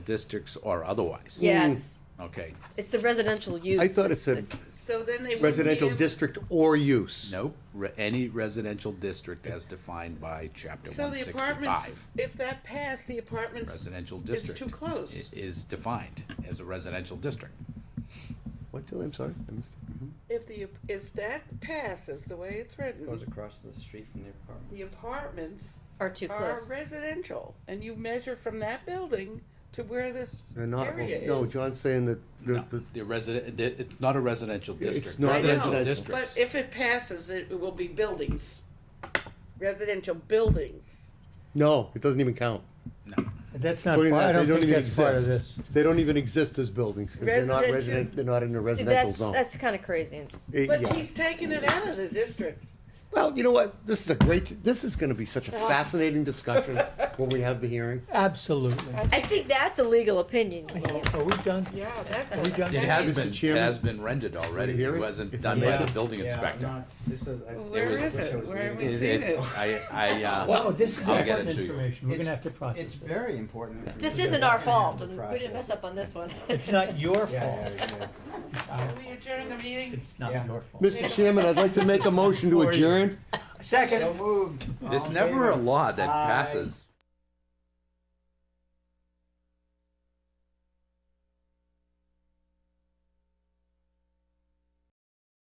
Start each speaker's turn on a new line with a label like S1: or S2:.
S1: districts or otherwise?
S2: Yes,
S1: Okay,
S2: it's the residential use.
S3: I thought it
S2: It's the-
S3: said
S4: So then they wouldn't be
S3: residential
S4: able-
S3: district or use.
S1: nope, Re- any residential district as defined by chapter
S4: So
S1: one
S4: the apartments,
S1: sixty-five.
S4: if that passed, the apartments,
S1: Residential
S4: it's
S1: district.
S4: too
S1: i-
S4: close.
S1: Is defined as a residential district.
S3: What, Tilly, I'm sorry, I missed it.
S4: If the, if that passes the way it's
S5: Goes
S4: written,
S5: across the street from the apartment.
S4: the apartments
S2: Are too
S4: are
S2: close.
S4: residential, and you measure from that building to where this
S3: They're not,
S4: area is.
S3: no, John's saying that,
S1: No,
S3: the- the-
S1: The resident, the- it's not a residential
S3: It's
S1: district.
S3: not
S4: I know,
S3: residential.
S4: But
S1: districts-
S4: if it passes, it will be buildings, residential buildings.
S3: no, it doesn't even count.
S6: That's not,
S3: Putting
S6: part-
S3: that,
S6: I
S3: they
S6: don't think
S3: even
S6: that's part of
S3: exist.
S6: this.
S3: They don't even exist as buildings, because they're not
S4: Residential-
S3: resident, they're not in a residential
S2: That's,
S3: zone.
S2: that's kind of crazy.
S3: It-
S4: But
S3: yeah.
S4: he's taking it out of the district.
S3: Well, you know what, this is a great, this is gonna be such a fascinating discussion when we have the hearing.
S6: Absolutely.
S2: I think that's a legal opinion.
S6: Are we done?
S4: Yeah,
S6: Are we
S4: that's.
S6: done?
S1: It has
S3: Mr.
S1: been, it
S3: Chairman?
S1: has been rendered already.
S3: Can you hear
S1: It
S3: it?
S1: wasn't
S3: If
S1: done
S3: you-
S1: by
S3: Yeah.
S1: the building inspector.
S5: This is. I-
S4: Where
S5: I was-
S4: is
S5: wish
S4: it?
S5: I was
S4: Where
S5: leaving.
S4: we
S1: It-
S4: seen
S1: it-
S4: it.
S1: I, I, uh,
S6: Oh, this is
S1: I'll get
S6: important
S1: it to you.
S6: information. We're
S5: It's-
S6: gonna have to process
S5: It's
S6: it.
S5: very important. for me
S2: This
S5: to
S2: isn't our
S5: understand
S2: fault.
S5: the
S2: We didn't mess
S5: process.
S2: up on this one.
S6: It's not your
S5: Yeah,
S6: fault.
S5: yeah, yeah.
S4: We adjourn the meeting?
S6: It's not
S5: Yeah.
S6: your fault.
S3: Mr. Chairman, I'd like to make a motion to
S6: For you.
S3: adjourn.
S6: Second.
S5: So moved. All
S1: there's
S5: in
S1: never a
S5: favor?
S1: law that
S5: Aye.
S1: passes